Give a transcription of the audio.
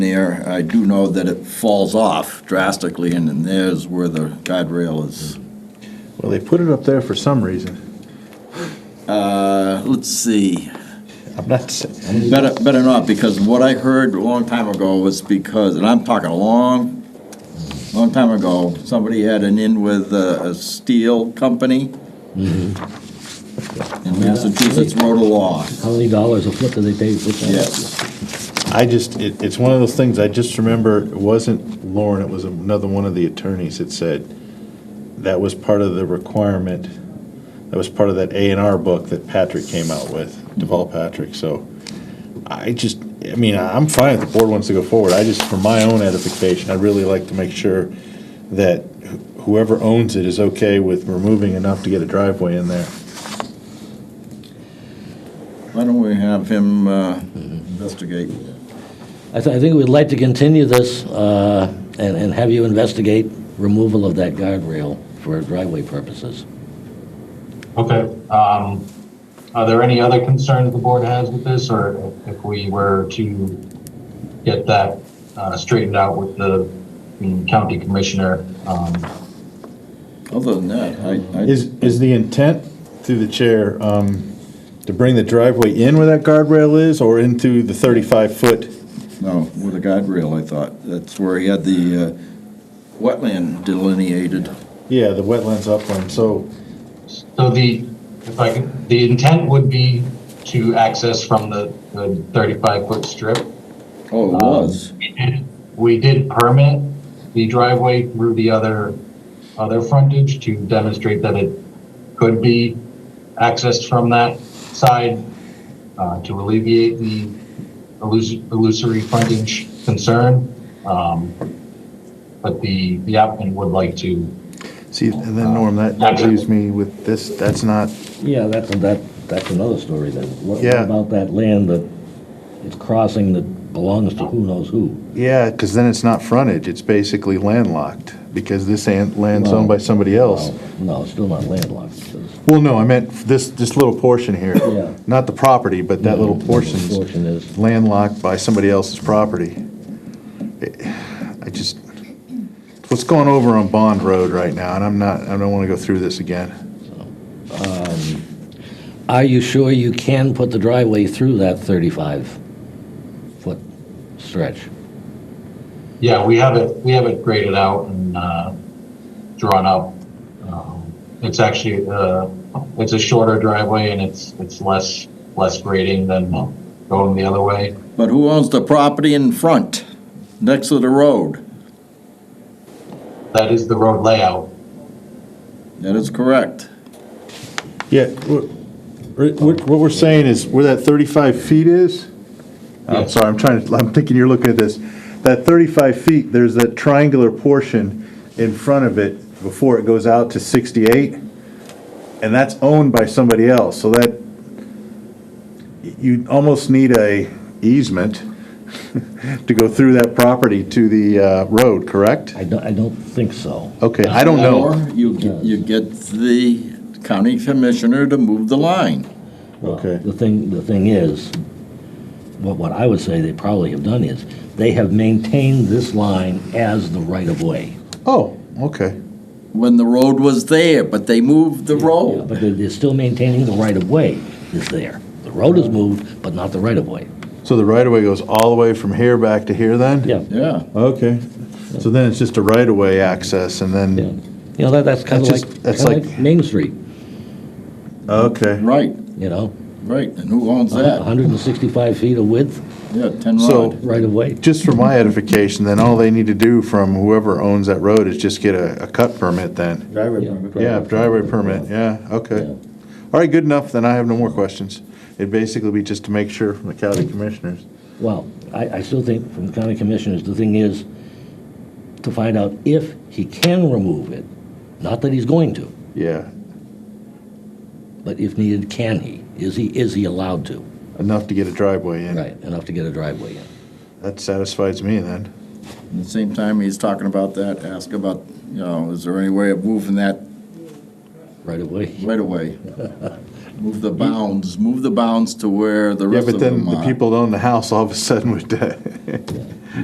there. I do know that it falls off drastically, and then there's where the guardrail is. Well, they put it up there for some reason. Uh, let's see, I'm not, s- better, better not, because what I heard a long time ago was because, and I'm talking a long, long time ago, somebody had an in with a, a steel company. And Massachusetts wrote a law, How many dollars a foot do they pay? What's that? yes. I just, it, it's one of those things, I just remember, it wasn't Lauren, it was another one of the attorneys that said that was part of the requirement, that was part of that A and R book that Patrick came out with, Deval Patrick, so I just, I mean, I'm fine if the board wants to go forward, I just, for my own edification, I'd really like to make sure that wh- whoever owns it is okay with removing enough to get a driveway in there. Why don't we have him, uh, investigate? I thi- I think we'd like to continue this uh, and and have you investigate removal of that guardrail for driveway purposes. Okay, um, are there any other concerns the board has with this, or if we were to get that, uh, straightened out with the mm, county commissioner? Um, Other than that, I, I. Is, is the intent through the chair, um, to bring the driveway in where that guardrail is or into the thirty-five foot? No, with a guide rail, I thought. That's where he had the uh, wetland delineated. Yeah, the wetlands upland, so, so the, if I can, the intent would be to access from the, the thirty-five foot strip. Oh, it was. We did permit the driveway through the other, other frontage to demonstrate that it could be accessed from that side uh, to alleviate the illus- illusory frontage concern. Um, But the, the applicant would like to, see, and then Norm, that that leaves me with this, that's not, Yeah, that's, that, that's another story then. What what Yeah. about that land that it's crossing that belongs to who knows who? yeah, because then it's not frontage, it's basically landlocked, because this an- land's No. owned by somebody else. Well, No, it's still not landlocked. because- Well, no, I meant this, this little portion here. Yeah. Not the property, but that little No, portion's Portion is, landlocked by somebody else's property. It- I just, what's going over on Bond Road right now, and I'm not, I don't want to go through this again. are you sure you can put the driveway through that 35-foot stretch? yeah, we have it, we have it graded out and uh, drawn up. Um, It's actually, uh, it's a shorter driveway and it's, it's less, less grading than going the other way. But who owns the property in front, next to the road? That is the road layout. That is correct. Yeah, what, what we're saying is where that 35 feet is? I'm Yes. sorry, I'm trying to, I'm thinking you're looking at this. That 35 feet, there's that triangular portion in front of it before it goes out to 68, and that's owned by somebody else, so that, you almost need a easement to go through that property to the uh, road, correct? I don't, I don't think so. Okay, I don't know. Or you, get- you get the county commissioner to move the line. Well, Okay. The thing, the thing is, what, what I would say they probably have done is, they have maintained this line as the right-of-way. Oh, okay. When the road was there, but they moved the Yeah, road. But they're, they're still maintaining the right-of-way is there. The road is moved, but not the right-of-way. So the right-of-way goes all the way from here back to here then? Yeah, Yeah, Okay, so then it's just a right-of-way access and yeah. then, You know, that, that's kind of That's like, just- that's kinda like- like Main Street, okay. right, you know? right. And who owns Uh-huh. that? 165 feet of width, Yeah, 10 So- rod. right-of-way. Just for my edification, then all they need to do from whoever owns that road is just get a, a cut permit then. Yeah, driveway permit, yeah, okay. All right, good enough, then I have no more questions. It'd basically be just to make sure from the county commissioners. Well, I, I still think from the county commissioners, the thing is to find out if he can remove it, not that he's going to, Yeah, but if needed, can he? Is he, is he allowed to? enough to get a driveway in. Right, enough to get a driveway in. That satisfies me then. At the same time, he's talking about that, ask about, you know, is there any way of moving that Right away, right away. Move the bounds, move the bounds to where the Yeah, rest but of them then the are. people that own the house all of a sudden would, uh,